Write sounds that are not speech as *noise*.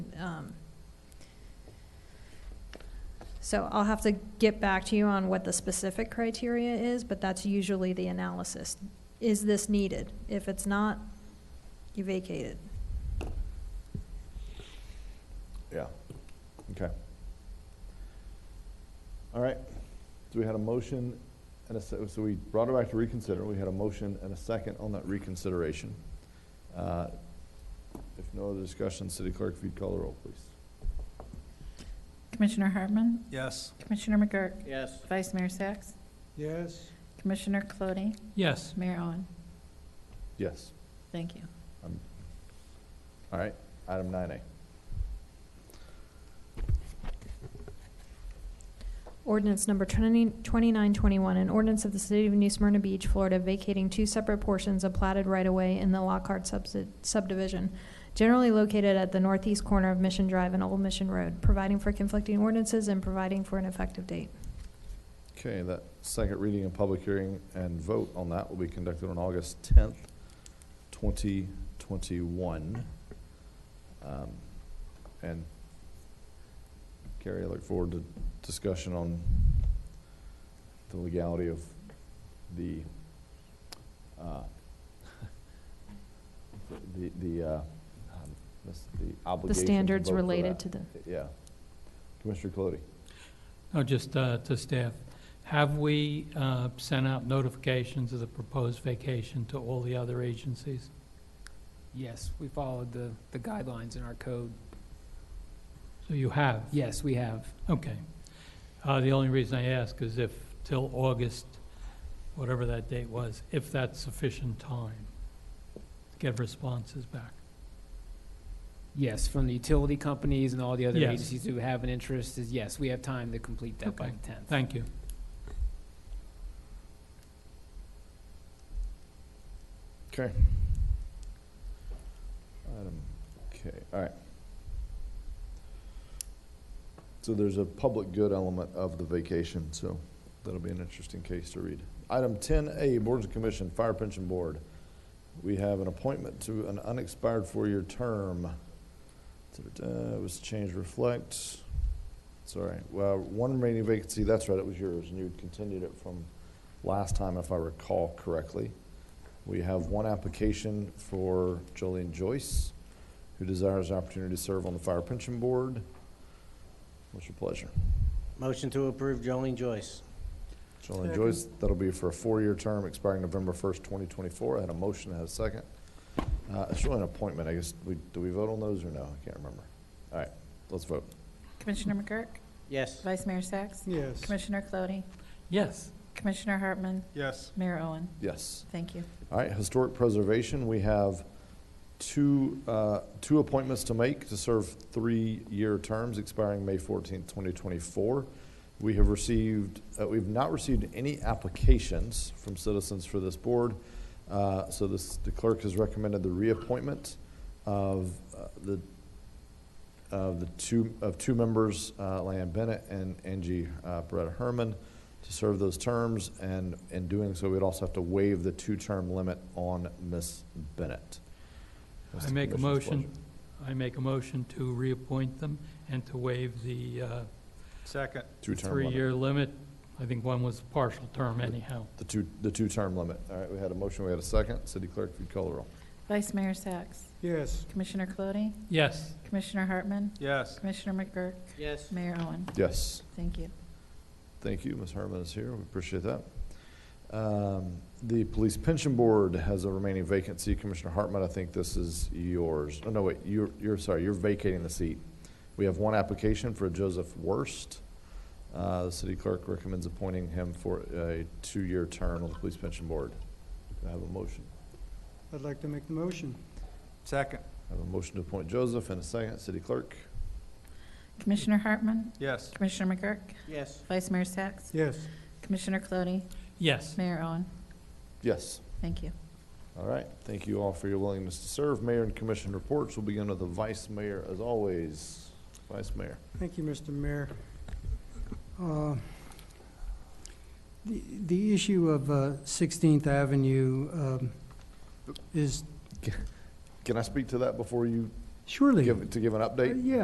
um, so I'll have to get back to you on what the specific criteria is, but that's usually the analysis. Is this needed? If it's not, you vacate it. Yeah, okay. All right, so we had a motion and a, se- so we brought it back to reconsider. We had a motion and a second on that reconsideration. Uh, If no other discussion, City Clerk, if you'd call the roll, please. Commissioner Hartman? Yes. Commissioner McGurk? Yes. Vice Mayor Sacks? Yes. Commissioner Cloney? Yes. Mayor Owen? Yes, Thank you. all right, item nine A. Ordinance number 20 2921, an ordinance of the City of New Smyrna Beach, Florida, vacating two separate portions of platted right-of-way in the Lockhart subsi- subdivision, generally located at the northeast corner of Mission Drive and Old Mission Road, providing for conflicting ordinances and providing for an effective date. Okay, that second reading and public hearing and vote on that will be conducted on August tenth, twenty twenty-one. Um, And Carrie, I look forward to discussion on the legality of the, uh, *laughs* the, the, uh, um, this- the The obligation to standards vote for related that. to the, Yeah. Commissioner Clody? No, just uh, to staff, have we uh, sent out notifications of the proposed vacation to all the other agencies? Yes, we followed the, the guidelines in our code. So you have? Yes, we have. Okay. Uh, The only reason I ask is if till August, whatever that date was, if that's sufficient time to get responses back. Yes, from the utility companies and all the other Yes. agencies who have an interest is, yes, we have time to complete that by Okay. the tenth. Thank you. Okay. Item, okay, all right. So there's a public good element of the vacation, so that'll be an interesting case to read. Item ten A, Boards and Commission, Fire Pension Board. We have an appointment to an unexpired four-year term. Da-da-da, It was changed, reflect, sorry, well, one remaining vacancy, that's right, it was yours, and you continued it from last time, if I recall correctly. We have one application for Jolene Joyce, who desires an opportunity to serve on the Fire Pension Board. What's your pleasure? Motion to approve Jolene Joyce. Jolene Joyce, that'll be for a four-year term expiring November 1st, 2024. I had a motion, I had a second. Uh, It's really an appointment, I guess. We Do we vote on those or no? I can't remember. All right, let's vote. Commissioner McGurk? Yes. Vice Mayor Sacks? Yes. Commissioner Cloney? Yes, Commissioner Hartman? Yes. Mayor Owen? Yes. Thank you. All right, Historic Preservation, we have two, uh, two appointments to make to serve three-year terms expiring May fourteenth, twenty twenty-four. We have received, uh, we've not received any applications from citizens for this board. Uh, so this, the clerk has recommended the reappointment of uh, the, of the two, of two members, uh, Lan Bennett and Angie, uh, Beretta Herman to serve those terms, and in doing so, we'd also have to waive the two-term limit on Ms. Bennett. What's I the make a commission's motion. pleasure? I make a motion to reappoint them and to waive the uh, Second. Two-term limit. three-year limit. I think one was a partial term anyhow. The two, the two-term limit. All right, we had a motion, we had a second. City Clerk, if you'd call the roll. Vice Mayor Sacks? Yes. Commissioner Cloney? Yes, Commissioner Hartman? Yes. Commissioner McGurk? Yes. Mayor Owen? Yes, Thank you. thank you. Ms. Herman is here. We appreciate that. Um, The Police Pension Board has a remaining vacancy. Commissioner Hartman, I think this is yours. Oh, no, wait, you're, you're, sorry, you're vacating the seat. We have one application for Joseph Worst. Uh, The City Clerk recommends appointing him for a two-year term on the Police Pension Board. Do I have a motion? I'd like to make the motion. Second. I have a motion to appoint Joseph and a second. City Clerk? Commissioner Hartman? Yes. Commissioner McGurk? Yes. Vice Mayor Sacks? Yes. Commissioner Cloney? yes. Mayor Owen? Yes. Thank you. All right, thank you all for your willingness to serve. Mayor and commission reports, we'll begin with the vice mayor as always. Vice mayor. Thank you, Mr. Mayor. Uh, The the issue of uh, 16th Avenue um, is Can I speak to that before you surely, give, to give an update? Uh, yeah,